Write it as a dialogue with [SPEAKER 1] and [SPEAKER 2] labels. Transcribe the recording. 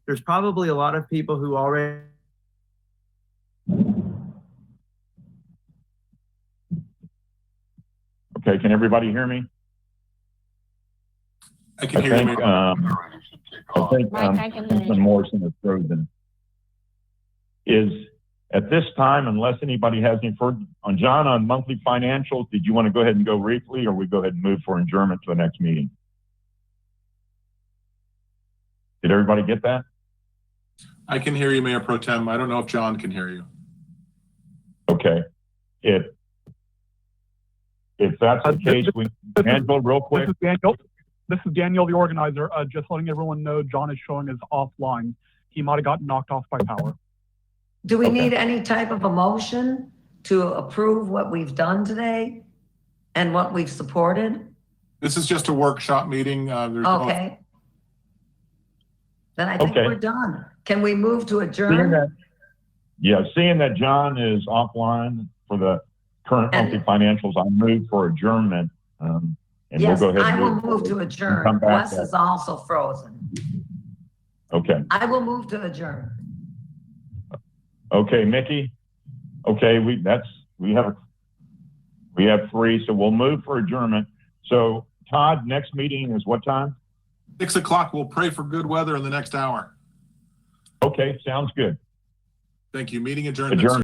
[SPEAKER 1] there's probably a lot of people who already
[SPEAKER 2] Okay, can everybody hear me?
[SPEAKER 3] I can
[SPEAKER 2] I
[SPEAKER 3] hear you.
[SPEAKER 2] think,
[SPEAKER 3] Mayor.
[SPEAKER 2] um, I think,
[SPEAKER 4] Mike,
[SPEAKER 2] um,
[SPEAKER 4] I can hear
[SPEAKER 2] Councilman
[SPEAKER 4] you.
[SPEAKER 2] Morrison has proven is at this time, unless anybody has any further, on John, on monthly financials, did you want to go ahead and go briefly or we go ahead and move for adjournment to the next meeting? Did everybody get that?
[SPEAKER 3] I can hear you, Mayor Pro Tem. I don't know if John can hear you.
[SPEAKER 2] Okay. If, if that's the case, we, Angela, real quick.
[SPEAKER 5] This is Daniel. This is Daniel, the organizer. Uh, just letting everyone know, John is showing us offline. He might have gotten knocked off by power.
[SPEAKER 6] Do we
[SPEAKER 2] Okay.
[SPEAKER 6] need any type of a motion to approve what we've done today and what we've supported?
[SPEAKER 3] This is just a workshop meeting. Uh, there's no-
[SPEAKER 6] Okay. Then I think
[SPEAKER 2] Okay.
[SPEAKER 6] we're done. Can we move to
[SPEAKER 2] Seeing
[SPEAKER 6] adjourn?
[SPEAKER 2] that, yeah, seeing that John is offline for the current monthly
[SPEAKER 6] And-
[SPEAKER 2] financials, I move for adjournment. Um, and we'll
[SPEAKER 6] Yes,
[SPEAKER 2] go ahead.
[SPEAKER 6] I
[SPEAKER 2] and
[SPEAKER 6] will move to adjourn.
[SPEAKER 2] Come back
[SPEAKER 6] Wes
[SPEAKER 2] then.
[SPEAKER 6] is also frozen.
[SPEAKER 2] Okay,
[SPEAKER 6] I will move to adjourn.
[SPEAKER 2] okay, Mickey. Okay, we, that's, we have, we have three, so we'll move for adjournment. So Todd, next meeting is what time?
[SPEAKER 3] Six o'clock. We'll pray for good weather in the next hour.
[SPEAKER 2] Okay, sounds good.
[SPEAKER 3] Thank you. Meeting adjourned.
[SPEAKER 2] Adjourned.